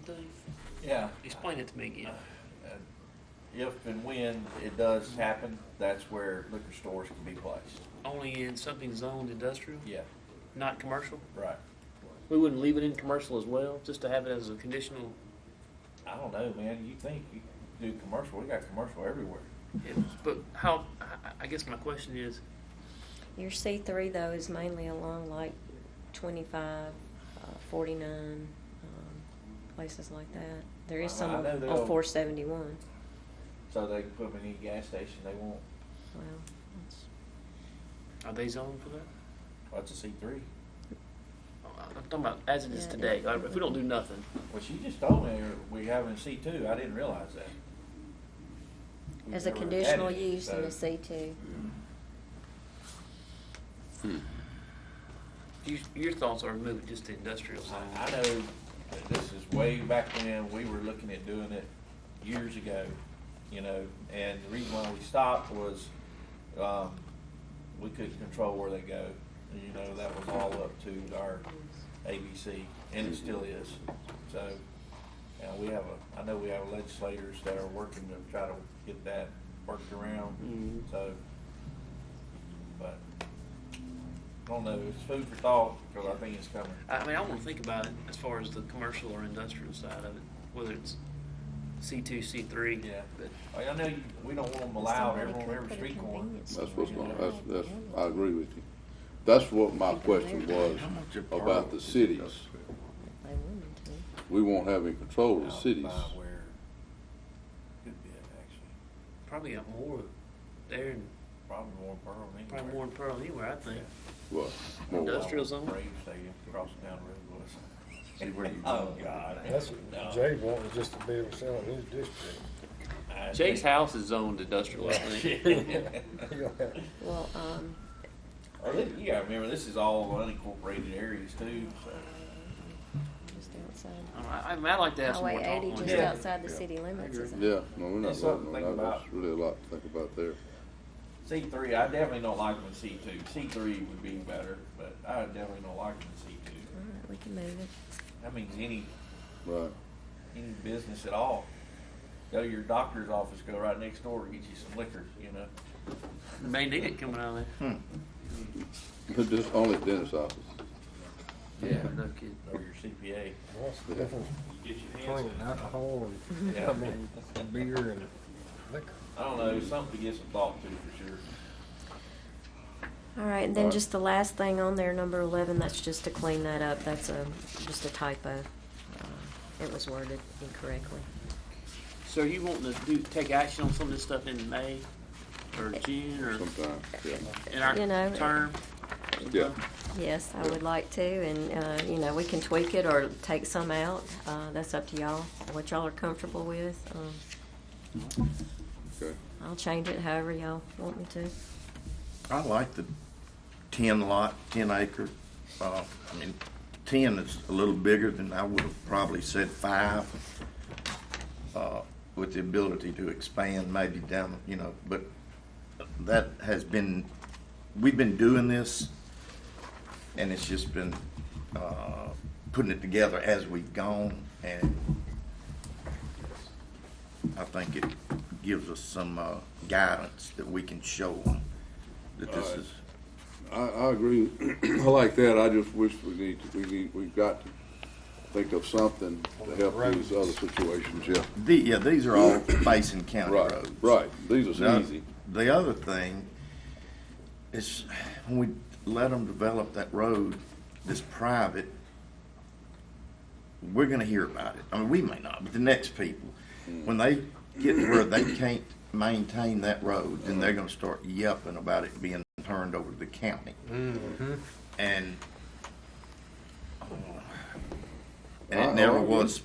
thing? Yeah. Explain it to me again. And If and when it does happen, that's where liquor stores can be placed. Only in something zoned industrial, Yeah, not commercial? right. We wouldn't leave it in commercial as well, just to have it as a conditional, I don't know, man. You think you do commercial? We got commercial everywhere. yeah, but how, I- I guess my question is, Your C three though is mainly along like twenty-five, uh, forty-nine, um, places like that. There is some I- I know on- they're on all- four seventy-one, So they can put them in any gas station they want. well, that's, are they zoned for that? That's a C three. I'm talking about as it is Yeah, today, yeah. like, if we don't do nothing, Well, she just told me uh, we have a C two. I didn't realize that. We've as a never had conditional it, use in so- a C two. you, your thoughts are move it just to industrial zone. I I know that this is way back when we were looking at doing it years ago, you know, and the reason why we stopped was, um, we couldn't control where they go. And, You know, that was all up to our ABC, and it still is. So, uh, we have a, I know we have legislators that are working to try to get that worked around, Mhm. so. But, I don't know, it's food for thought, cause I think it's coming. I mean, I want to think about it as far as the commercial or industrial side of it, whether it's C two, C three. Yeah. But Like, I know you, we don't want them allowed every, on every street corner. That's what's going, that's, that's, I agree with you. That's what my question was about the cities. They wanted to. We won't have any control of the Out cities. by where- could be, actually. probably got more there and Probably more Pearl than probably anywhere. more in Pearl anywhere, I think. What? Well, More- Industrial zone? Braves Stadium, across down the road was. See where you Oh, go. God. That's what Jay wanted just to be able to sell in his district. I Jake's think- house is zoned industrial, I think. He gonna have- Well, um, Or this- You gotta remember, this is all unincorporated areas too, so. just outside, Um, I, I mean, I'd like to have some more Highway talk eighty on just it. Yeah. outside the city limits is. it? Yeah, no, we're not It's something voting to on think that. about. There's really a lot to think about there. C three, I definitely don't like them in C two. C three would be better, but I definitely don't like them in C All two. right, we can move it. That means any Right. any business at all. Go to your doctor's office, go right next door, get you some liquor, you know. May need it coming out of there. Just only dentist offices. Yeah. No kidding. Or your CPA. What's the difference between alcohol and, Yeah. I mean, beer and liquor? I don't know, something to get some thought to for sure. All right, and then Alright. just the last thing on there, number eleven, that's just to clean that up, that's a, just a typo. Uh, It was worded incorrectly. So are you wanting to do, take action on some of this stuff in May or June or Sometimes, yeah, in our You know, term? yeah. Yes, I would like to, and, uh, you know, we can tweak it or take some out, uh, that's up to y'all, what y'all are comfortable with. Um, Okay. I'll change it however y'all want me to. I like the ten lot, ten acre, uh, I mean, ten is a little bigger than I would have probably said five. Uh, with the ability to expand maybe down, you know, but that has been, we've been doing this and it's just been, uh, putting it together as we've gone and I think it gives us some, uh, guidance that we can show that this is. I, I agree. I like that. I just wish we need, to- we need, we've got to think of something to help these other situations, yeah. The, yeah, these are all facing county Right, roads. right. These Now, are easy. The other thing is when we let them develop that road that's private, we're gonna hear about it. I mean, we may not, but the next people, when they get to where they can't maintain that road, then they're gonna start yelping about it being turned over to the county. And, and I- I it never agree. was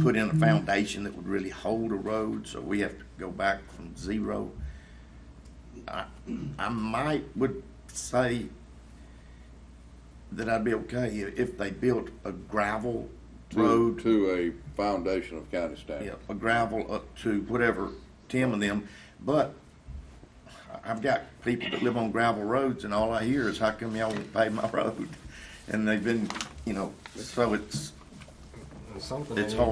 put in a foundation that would really hold a road, so we have to go back from zero. I, I might would say that I'd be okay if they built a gravel To- road To a foundation of county standards. yeah, a gravel up to whatever, Tim and them, but I- I've got people that live on gravel roads and all I hear is, how come y'all won't pave my road? And they've been, you know, so it's, And something it's they need- hard.